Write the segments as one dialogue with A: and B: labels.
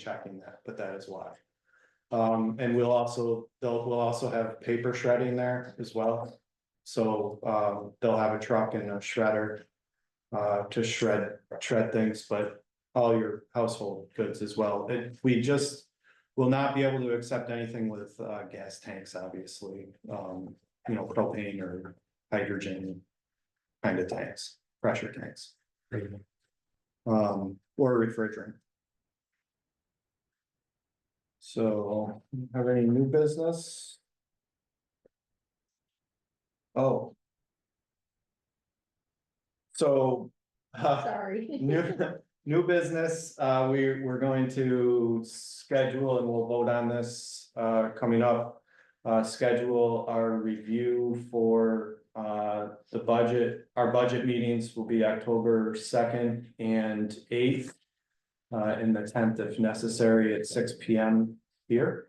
A: checking that, but that is why. Um, and we'll also, they'll, we'll also have paper shredding there as well. So, um, they'll have a truck and a shredder. Uh, to shred, shred things, but all your household goods as well. And we just. Will not be able to accept anything with, uh, gas tanks, obviously, um, you know, propane or hydrogen. Kind of tanks, pressure tanks. Um, or refrigerant. So, have any new business? Oh. So, uh,
B: Sorry.
A: new, new business, uh, we, we're going to schedule and we'll vote on this, uh, coming up. Uh, schedule our review for, uh, the budget, our budget meetings will be October second and eighth. Uh, and the tenth if necessary at six P M here.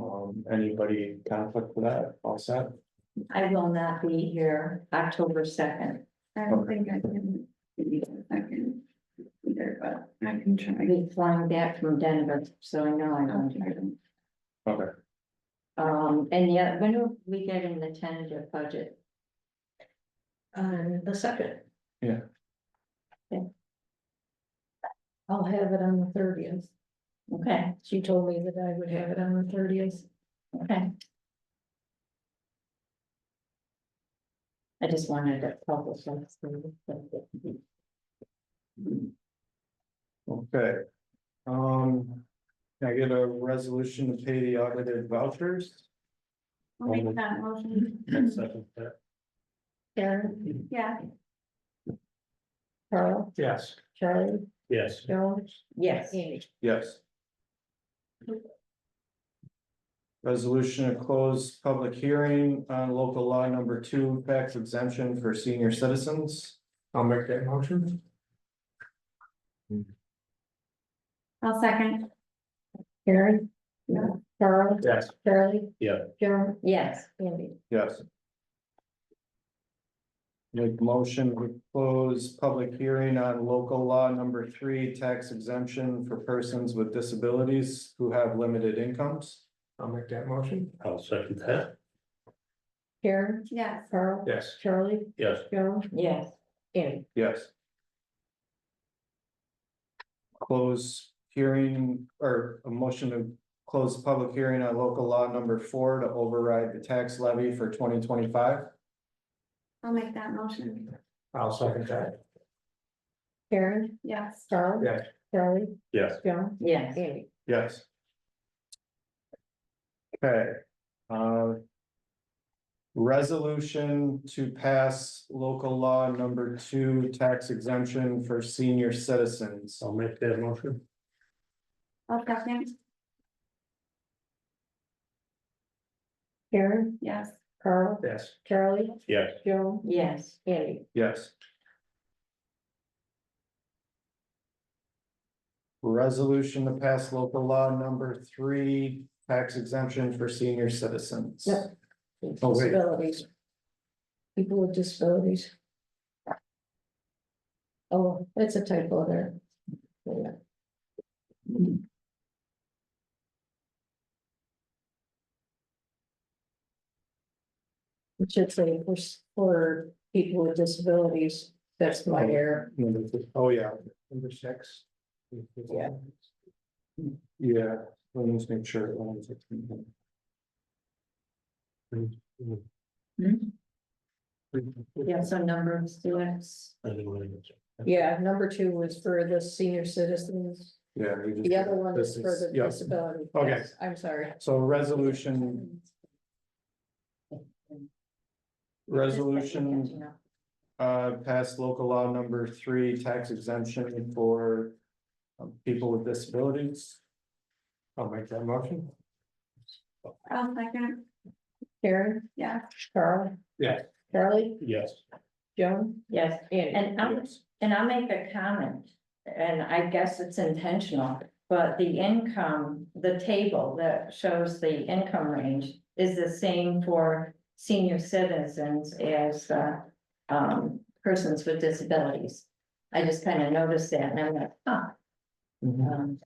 A: Um, anybody conflict with that, all set?
B: I will not be here October second.
C: I don't think I can. I can. Either, but I can
B: I'll
C: try.
B: be flying back from Denver, so I know I don't.
A: Okay,
B: Um, and yet, when are we getting the tentative budget?
D: On Um, the second.
A: Yeah.
D: Okay. I'll have it on the thirtieth.
B: Okay,
D: She told me that I would have it on the thirtieth.
B: okay. I just wanted to publish that.
A: okay. Um, can I get a resolution to pay the audited vouchers?
C: I'll make that motion.
A: Mm-hmm.
D: Karen,
C: Yeah,
D: Carl,
A: Yes.
D: Charlie,
E: Yes,
D: Joan,
B: Yes,
D: Amy.
A: Yes. Resolution to close public hearing on local law number two, tax exemption for senior citizens. I'll make that motion.
C: I'll second.
D: Karen. No. Carl,
E: yes.
D: Charlie.
E: Yeah.
D: Joan,
B: yes,
D: Amy.
A: Yes. Make motion to close public hearing on local law number three, tax exemption for persons with disabilities who have limited incomes. I'll make that motion.
E: I'll second that.
D: Karen,
C: Yes,
D: Carl.
E: Yes.
D: Charlie,
E: Yes,
D: Joan,
B: yes,
D: Amy.
A: Yes. Close hearing or a motion to close public hearing on local law number four to override the tax levy for twenty twenty-five.
C: I'll make that motion.
A: I'll second that.
D: Karen,
C: Yes,
D: Carl.
A: Yeah.
D: Charlie,
E: yes.
D: Joan,
B: yes.
D: Amy.
A: Yes. Okay, uh. Resolution to pass local law number two, tax exemption for senior citizens.
E: I'll make that motion.
C: I'll second.
D: Karen,
C: Yes,
D: Carl,
E: Yes.
D: Charlie,
E: Yes,
D: Joan,
B: Yes,
D: Amy.
A: Yes. Resolution to pass local law number three, tax exemption for senior citizens.
D: Yep.
A: Oh, wait.
D: Disabilities. People with disabilities. Oh, that's a typo there. Yeah. It should say for, s- for people with disabilities, that's
A: Oh.
D: my error.
A: Number th- Oh, yeah. Number six.
D: Yeah.
A: Yeah, let me just make sure. let me just-
B: yeah, so number of students.
E: Anyway,
D: Yeah, number two was for the senior citizens.
A: Yeah. you just-
D: The other one is
A: This
D: for the
A: yeah.
D: disability.
A: Okay.
D: Yes, I'm sorry.
A: So resolution, resolution uh, pass local law number three, tax exemption for um, people with disabilities. I'll make that motion.
C: I'll second.
D: Karen,
C: Yes,
D: Carl.
A: Yeah.
D: Charlie,
E: yes,
D: Joan,
B: Yes,
D: Annie.
B: and I'm And I'll make a comment, and I guess it's intentional, but the income, the table that shows the income range is the same for senior citizens as, uh, um, persons with disabilities. I just kind of noticed that and I'm like, huh,
A: Mhm.
B: Um,